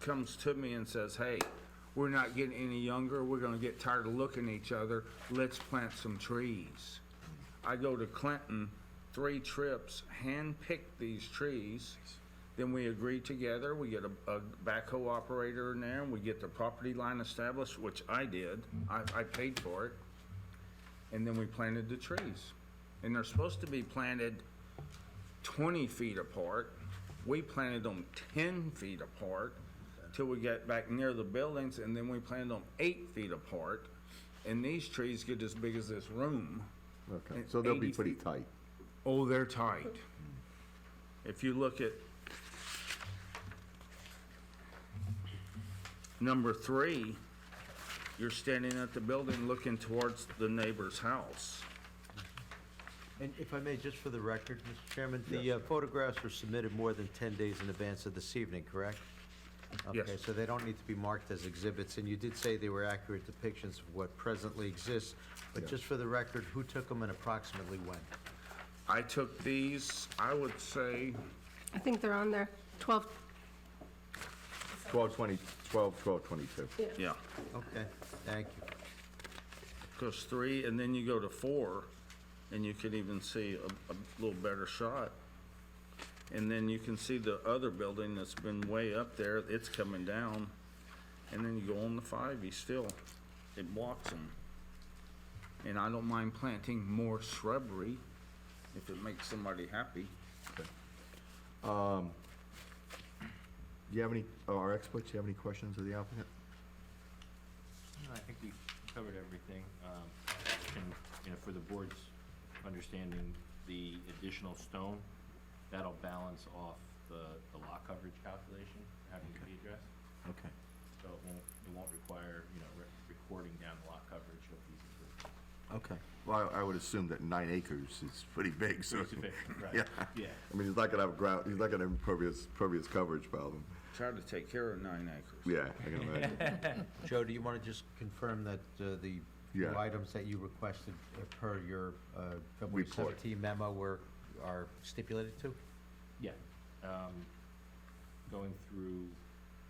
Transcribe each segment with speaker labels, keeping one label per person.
Speaker 1: comes to me and says, hey, we're not getting any younger, we're gonna get tired of looking at each other, let's plant some trees. I go to Clinton, three trips, handpick these trees. Then we agree together, we get a, a backhoe operator in there, and we get the property line established, which I did. I, I paid for it. And then we planted the trees. And they're supposed to be planted twenty feet apart. We planted them ten feet apart till we got back near the buildings, and then we planted them eight feet apart. And these trees get as big as this room.
Speaker 2: Okay,
Speaker 1: And
Speaker 2: so they'll be
Speaker 1: 80
Speaker 2: pretty
Speaker 1: feet.
Speaker 2: tight.
Speaker 1: Oh, they're tight. If you look at number three, you're standing at the building looking towards the neighbor's house.
Speaker 3: And if I may, just for the record, Mr. Chairman, the uh, photographs were submitted more than 10 days in advance of this evening, correct?
Speaker 1: Yes.
Speaker 3: Okay, so they don't need to be marked as exhibits, and you did say they were accurate depictions of what presently exists, but just for the record, who took them and approximately when?
Speaker 1: I took these, I would say,
Speaker 4: I think they're on there, 12,
Speaker 2: Twelve twenty, twelve, twelve twenty-two.
Speaker 1: yeah,
Speaker 3: Okay, thank you.
Speaker 1: goes three, and then you go to four, and you can even see a, a little better shot. And then you can see the other building that's been way up there, it's coming down. And then you go on to five, you still, it blocks them. And I don't mind planting more shrubbery if it makes somebody happy.
Speaker 2: Do you have any, uh, our experts, do you have any questions of the applicant?
Speaker 5: No, I think we've covered everything. Um, And, you know, for the board's understanding, the additional stone, that'll balance off the, the lot coverage calculation having to be addressed.
Speaker 2: Okay.
Speaker 5: So it won't, it won't require, you know, re- recording down the lot coverage of these improvements.
Speaker 2: Okay. Well, I I would assume that nine acres is pretty big, so.
Speaker 5: Pretty sufficient, right?
Speaker 2: Yeah.
Speaker 5: Yeah.
Speaker 2: I mean, he's not gonna have ground, he's not gonna have impervious, impervious coverage problem.
Speaker 1: Try to take care of nine acres.
Speaker 2: Yeah, I can imagine.
Speaker 3: Joe, do you want to just confirm that uh, the few
Speaker 2: Yeah.
Speaker 3: items that you requested uh, per your uh, February
Speaker 2: Report.
Speaker 3: 17 memo were, are stipulated to?
Speaker 5: Yeah. Um, Going through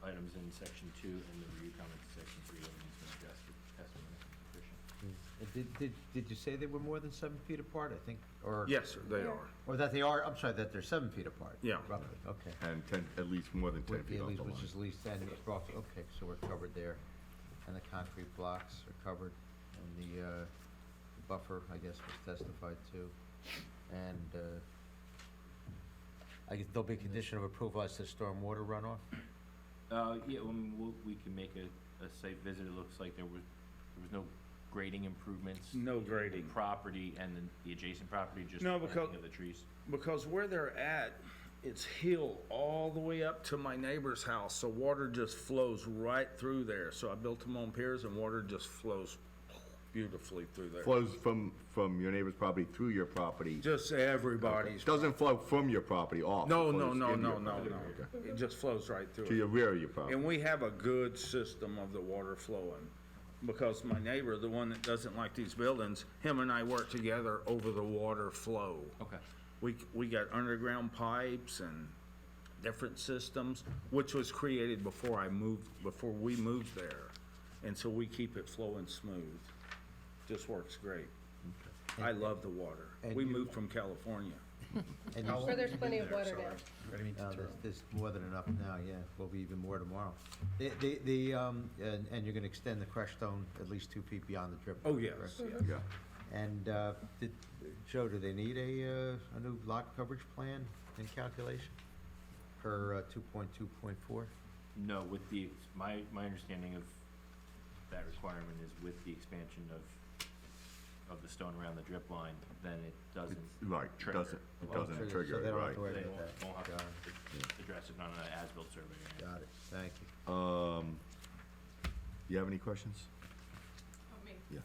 Speaker 5: items in section two and the review comments in section three, everything's been addressed with testimony and sufficient.
Speaker 3: Uh, Did, did, did you say they were more than seven feet apart, I think, or?
Speaker 1: Yes, sir, they are.
Speaker 3: Or that they are, I'm sorry, that they're seven feet apart?
Speaker 1: Yeah.
Speaker 3: Roughly, okay.
Speaker 2: And ten, at least more than ten
Speaker 3: Would be
Speaker 2: feet
Speaker 3: at
Speaker 2: off
Speaker 3: least,
Speaker 2: the line.
Speaker 3: which is at least, and it's rough, okay, so we're covered there. And the concrete blocks are covered, and the, uh, buffer, I guess, was testified to. And, uh, I guess there'll be a condition of approval as to stormwater runoff?
Speaker 5: Uh, yeah, I mean, we'll, we can make a, a site visit, it looks like there was, there was no grading improvements.
Speaker 1: No
Speaker 5: in the
Speaker 1: grading.
Speaker 5: Property and then the adjacent property, just
Speaker 1: No,
Speaker 5: the
Speaker 1: because-
Speaker 5: planting of the trees.
Speaker 1: Because where they're at, it's hill all the way up to my neighbor's house, so water just flows right through there. So I built them on piers and water just flows beautifully through there.
Speaker 2: Flows from, from your neighbor's property through your property.
Speaker 1: Just everybody's,
Speaker 2: Doesn't flow from your property off. it
Speaker 1: no, no,
Speaker 2: flows
Speaker 1: no,
Speaker 2: into
Speaker 1: no,
Speaker 2: your
Speaker 1: no,
Speaker 2: property.
Speaker 1: no.
Speaker 2: Okay.
Speaker 1: It just flows right
Speaker 2: To
Speaker 1: through.
Speaker 2: your
Speaker 1: it.
Speaker 2: rear of your property.
Speaker 1: And we have a good system of the water flowing. Because my neighbor, the one that doesn't like these buildings, him and I work together over the water flow.
Speaker 5: Okay.
Speaker 1: We, we got underground pipes and different systems, which was created before I moved, before we moved there. And so we keep it flowing smooth. Just works great. I love the water.
Speaker 3: And
Speaker 1: We
Speaker 3: you-
Speaker 1: moved from California.
Speaker 3: And you-
Speaker 4: where Oh, there's plenty of water now.
Speaker 3: No, there's, there's more than enough now, yeah, will be even more tomorrow. The, the, the, um, and, and you're gonna extend the crushed stone at least two feet beyond the drip.
Speaker 1: Oh,
Speaker 3: line,
Speaker 1: yes,
Speaker 3: correct?
Speaker 1: yes.
Speaker 2: Yeah.
Speaker 3: And, uh, did, Joe, do they need a, uh, a new lot coverage plan and calculation per, uh, two point two point four?
Speaker 5: No, with the, my, my understanding of that requirement is with the expansion of, of the stone around the drip line, then it doesn't.
Speaker 2: Right, it
Speaker 5: trigger.
Speaker 2: doesn't- it
Speaker 5: Well,
Speaker 2: doesn't. trigger
Speaker 3: Oh, So
Speaker 2: it,
Speaker 3: they don't have
Speaker 2: right.
Speaker 3: to worry
Speaker 5: They
Speaker 3: about
Speaker 5: won't,
Speaker 3: that.
Speaker 5: won't have
Speaker 3: Got it,
Speaker 5: to address it on an as-built survey.
Speaker 3: got it, thank you.
Speaker 2: Um, you have any questions?
Speaker 6: Oh, me?
Speaker 2: Yeah.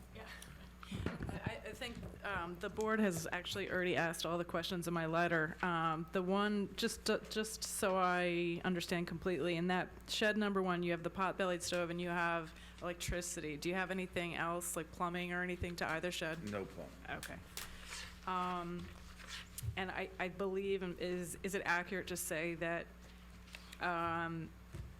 Speaker 6: I, I think um, the board has actually already asked all the questions in my letter. Um, The one, just, just so I understand completely, in that shed number one, you have the pot-bellied stove and you have electricity. Do you have anything else, like plumbing or anything to either shed?
Speaker 1: No problem.
Speaker 6: Okay. Um, And I, I believe, um, is, is it accurate to say that um,